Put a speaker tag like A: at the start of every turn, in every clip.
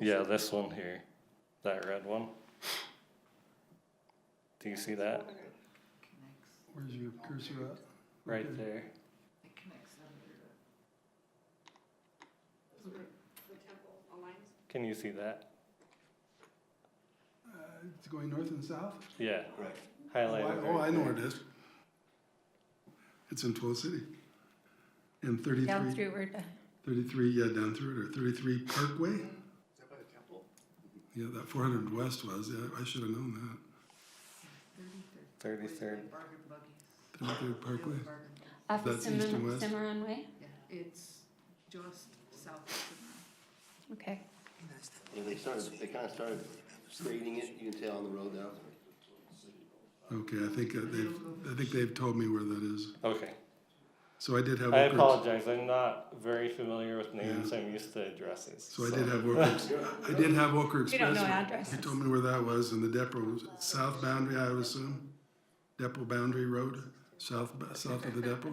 A: Yeah, this one here, that red one. Do you see that?
B: Connects,
C: Where's your cursor at? Mm-hmm.
A: Right there.
B: it connects under the.
A: Can you see that?
C: Uh, It's going north and south?
A: Yeah,
D: Right.
C: Oh, I-
A: highlighted.
C: Oh,
A: right
C: I know
A: there.
C: where it is. It's in Twil City. And
E: Down
C: thirty-three,
E: through, we're done.
C: thirty-three, yeah, down through it, or thirty-three Parkway?
D: Is that by the temple?
C: Yeah, that four hundred west was, yeah, I should have known
B: Thirty-third.
A: 33rd.
B: Bargain buggies.
C: that. Thirty-three Parkway.
B: Bargain buggies.
E: Off of
C: That's east and
E: Cimarron
C: west.
E: Cimarron Way?
B: Yeah, it's just south of
E: Okay.
D: Yeah, they started, they kind of started grading it, you can tell on the road now.
C: Okay, I think uh, they've, I think they've told me where that is.
A: Okay,
C: So I did have.
A: I
C: Oak Ridge-
A: apologize, I'm not very familiar with names,
C: Yeah.
A: I'm used to addresses.
C: So I did have Oker, Ex- I did have Oker Express.
E: We don't know
C: He
E: addresses.
C: told me where that was, and the depot was south boundary, I would assume. Depot Boundary Road, south, south of the depot.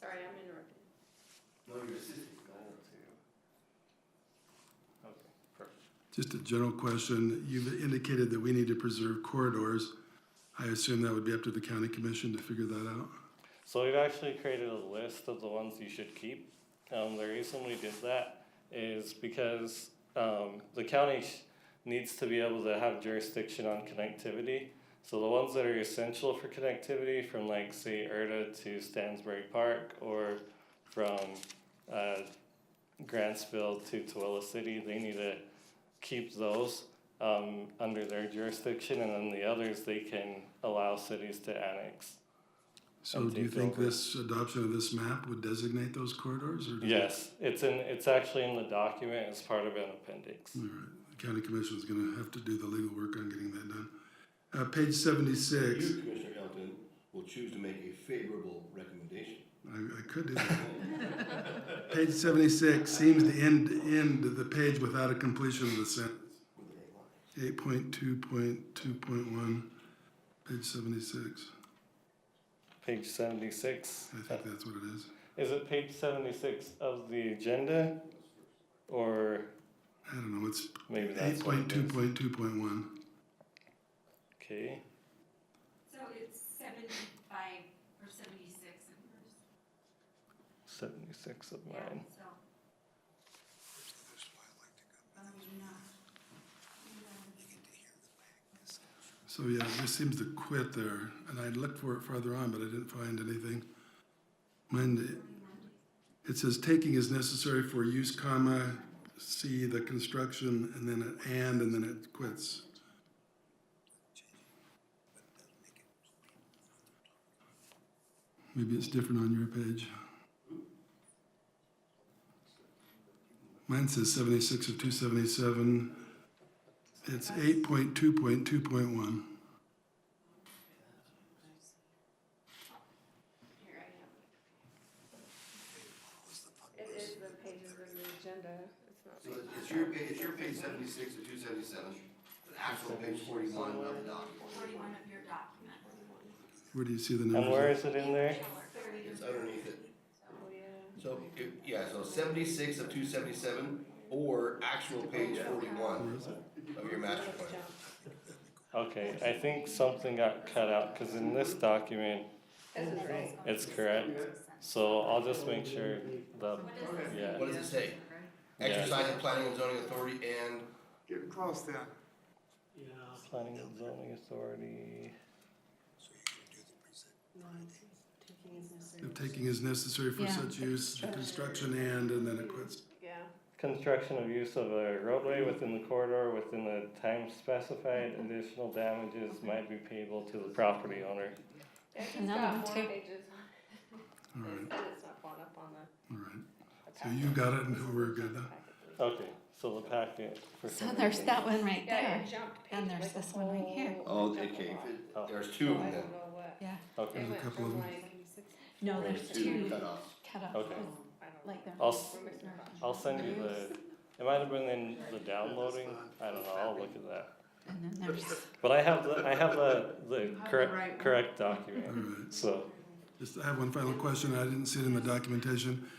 F: Sorry, I'm interrupting.
D: No, you're
A: Okay, perfect.
C: Just a general question. You've indicated that we need to preserve corridors. I assume that would be up to the county commission to figure that out.
A: So we've actually created a list of the ones you should keep. Um, the reason we did that is because um, the county sh- needs to be able to have jurisdiction on connectivity. So the ones that are essential for connectivity, from like say Erta to Stansbury Park, or from uh, Grantsville to Tooele City, they need to keep those um, under their jurisdiction, and then the others they can allow cities to annex.
C: So
A: And
C: do you
A: take
C: think
A: over.
C: this adoption of this map would designate those corridors? or do you-
A: Yes, it's in, it's actually in the document, it's part of an appendix.
C: All right, the county commission is gonna have to do the legal work on getting that done. Uh, page seventy-six,
D: You, Commissioner Elton, will choose to make a favorable recommendation.
C: I, I could do that. Page seventy-six seems to end, end the page without a completion of the sentence. Eight point two point two point one, page seventy-six.
A: Page seventy-six,
C: I think that's what it is.
A: is it page seventy-six of the agenda? Or
C: I don't know, it's
A: maybe that's
C: eight
A: what
C: point
A: it
C: two
A: is.
C: point two point one.
A: Okay,
F: So it's seventy-five or seventy-six of yours?
A: seventy-six of mine.
F: So. Um,
C: So yeah, it just seems to quit there, and I looked for it farther on, but I didn't find anything. Mine, it says taking is necessary for use, comma, see the construction, and then it and, and then it quits. Maybe it's different on your page. Mine says seventy-six of two seventy-seven. It's eight point two point two point one.
F: Here I am. It is the pages of the agenda, it's not.
D: So it's- it's your page, it's your page seventy-six to two seventy-seven, the actual page forty-one of the document.
F: Forty-one of your document.
C: Where do you see the
A: And where
C: numbers?
A: is it in there?
D: It's underneath it.
F: Oh, yeah.
D: So, it- yeah, so seventy-six of two seventy-seven, or actual page forty-one of your master plan.
A: Okay, I think something got cut out, cause in this document,
F: This is right.
A: it's correct. So I'll just make sure the,
F: What is this?
A: yeah,
D: What does it say?
A: Yeah.
D: Exercise of planning and zoning authority and
G: Getting close then.
A: planning and zoning authority.
C: If taking is necessary for
E: Yeah.
C: such use, construction and, and then it quits.
F: Yeah.
A: Construction of use of a roadway within the corridor within the time specified, additional damages might be payable to the property owner.
F: It's
E: And that one
F: got more
E: too.
F: pages.
C: All right,
F: It said it's not going up on the.
C: all right. So you got it, and we're good then.
E: Oh.
A: Okay, so the packet for.
E: So
A: some
E: there's
A: reason-
E: that one right
F: Yeah,
E: there.
F: it jumped
E: And there's
F: pages, like,
E: this one right here.
D: Oh,
F: it
D: okay,
F: jumped a lot.
D: if it- there's two
F: So
D: of
F: I
D: them.
F: don't know what.
E: Yeah.
A: Okay,
F: It
C: There's a
F: went
C: couple
F: from
C: of
F: like,
E: No,
D: There's
E: there's
D: two
E: two
D: cutoffs.
E: cut off.
A: Okay.
F: I don't know.
E: Like there.
A: I'll, s-
F: We're missing a bunch.
A: I'll send you the, it might have been in the downloading, I don't know, I'll look at that.
E: And then there's,
A: But I have the, I have the, the
B: You have the right
A: correct,
B: one.
A: correct
C: All
A: document,
C: right.
A: so.
C: Just, I have one final question. I didn't see it in the documentation.